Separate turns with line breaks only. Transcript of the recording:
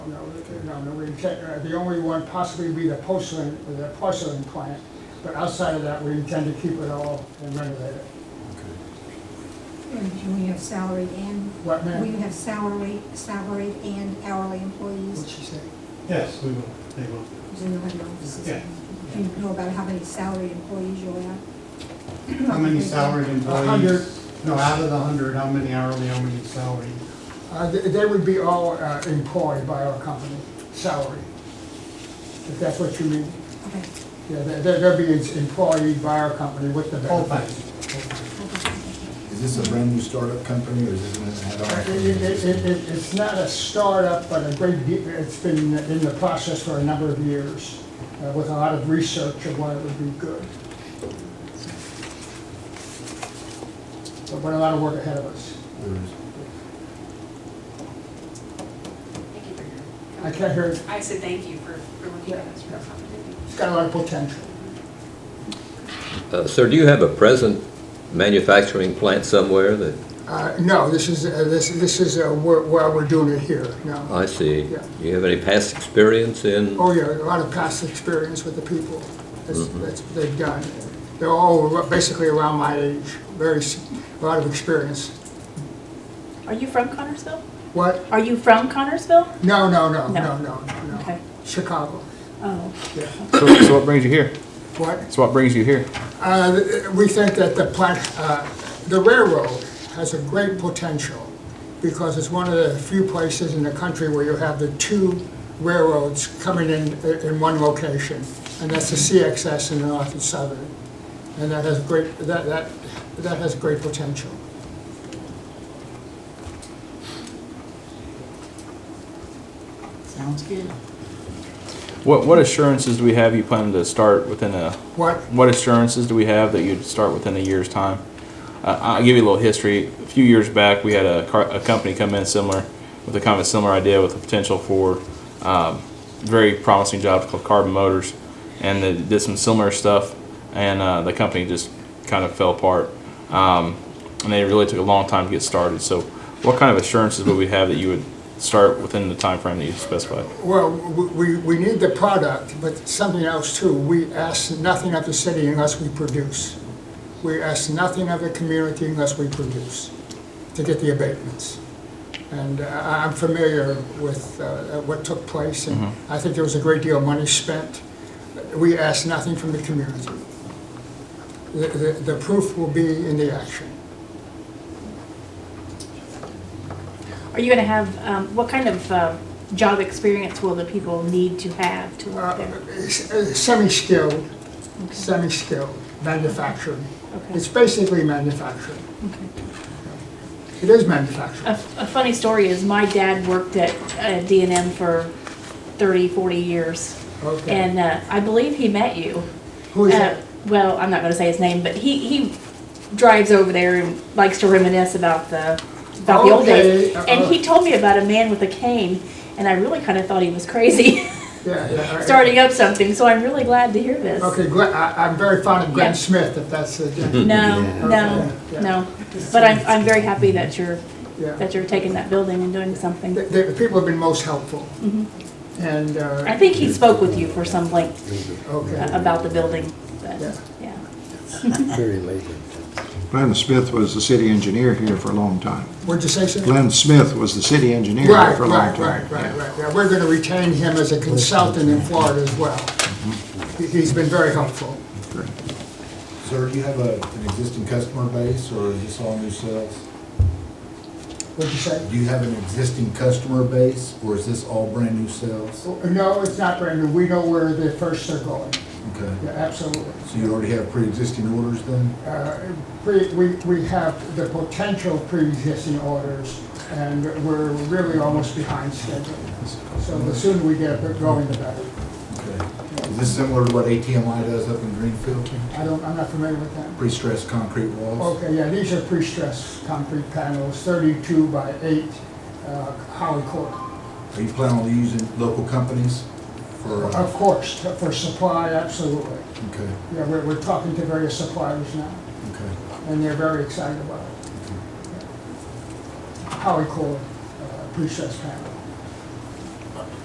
no, no, no, we can check, uh, the only one possibly would be the porcelain, the porcelain plant. But outside of that, we intend to keep it all and renovate it.
And do we have salaried and,
What,
will you
ma'am?
have salary, salaried and hourly
What'd
employees?
she say?
Yes, we will, they will.
Because in the head office,
Yeah.
do you know about how many salaried employees you'll have?
How many salaried employees?
hundred.
No, out of the hundred, how many hourly, how many salaried?
Uh, they, they would be all uh, employed by our company, salary. If that's what you mean.
Okay,
Yeah, they, they- they'll be employed by our company with the
Full
benefits.
time.
okay.
Is this a brand new startup company or is this an
It-
add-on?
it- it- it- it- It's not a startup, but a great, de- it's been in the process for a number of years uh, with a lot of research of why it would be good. So, But a lot of work ahead of us.
Or is-
Thank you for your.
I can't hear, it.
I said thank you for, for looking at us for this opportunity.
it's got a lot of potential.
Uh, Sir, do you have a present manufacturing plant somewhere that,
Uh, No, this is, uh, this, this is uh, where, where we're doing it here, no.
I see,
Yeah.
do you have any past experience in?
Oh, yeah, a lot of past experience with the people. That's, that's what they've done. They're all ar- basically around my age, very, s- a lot of experience.
Are you from Connersville?
What?
Are you from Connersville?
No, no, no, no,
No.
no, no.
Okay.
Chicago,
Oh.
yeah.
So, so what brings you here?
What?
So what brings you here?
Uh, We think that the plant, uh, the railroad has a great potential because it's one of the few places in the country where you have the two railroads coming in, uh, in one location. And that's the CXS and the North and Southern. And that has great, that, that, that has great potential.
Sounds good.
What what assurances do we have you plan to start within a?
What,
What assurances do we have that you'd start within a year's time? Uh, I'll give you a little history. A few years back, we had a, car, a company come in similar with a kind of a similar idea with the potential for um, very promising jobs called Carbon Motors, and they did some similar stuff, and uh, the company just kind of fell apart. Um, and they really took a long time to get started. So, what kind of assurances would we have that you would start within the time frame that you specified?
Well, we, we we need the product, but something else too. We ask nothing of the city unless we produce. We ask nothing of the community unless we produce to get the abatements. And uh, I- I'm familiar with uh, what took place, and I think there was a great deal of money spent. We ask nothing from the community. The, the, the proof will be in the action.
Are you going to have, um, what kind of um, job experience will the people need to have to work
Uh,
there?
s- uh, Semi-skilled, semi-skilled manufacturing.
Okay.
It's basically manufacturing.
Okay.
It is
A,
manufacturing.
a funny story is my dad worked at uh, D&M for 30, 40 years.
Okay.
And uh, I believe he met you.
Who is
Uh,
that?
Well, I'm not going to say his name, but he, he drives over there and likes to reminisce about the about the old days.
Okay, uh-uh.
And he told me about a man with a cane, and I really kind of thought he was crazy
Yeah, yeah, I-
starting up something. So I'm really glad to hear this.
Okay, Glenn, I, I'm very fond of Glenn
Yeah.
Smith, if that's the, yeah,
No,
Yeah.
no,
Yeah.
no. But I'm I'm very happy that you're
yeah.
that you're taking that building and doing something.
The, the people have been most helpful. And,
I
uh,
think he spoke with you for some length uh,
okay,
about the building. But,
Yeah.
yeah.
Glenn Smith was the city engineer here for a long time.
what'd you say, sir?
Glenn Smith was the city engineer here
Right,
for a long
right,
time.
right, right, right. Yeah, we're gonna retain him as a consultant in Florida as well.
Mm-hmm.
He- He's been very helpful.
Sir, do you have a, an existing customer base or is this all new sales?
What'd you say?
Do you have an existing customer base or is this all brand new sales?
Oh, No, it's not brand new. We know where the firsts are going.
Okay.
Yeah, absolutely.
So you already have pre-existing orders then?
Uh, pre- We, we have the potential pre-existing orders, and we're really almost behind schedule. So the sooner we get it going, the better.
Okay. Is this similar to what ATMI does up in Greenfield?
I don't, I'm not familiar with that.
Pre-stressed concrete walls?
Okay, yeah, these are pre-stressed concrete panels, 32 by 8, uh, Holly Court.
Are you planning on using local companies for, uh,
Of course, for supply, absolutely.
okay,
Yeah, we're, we're talking to various suppliers now,
okay.
and they're very excited about it. Holly Court, uh, pre-stressed panels.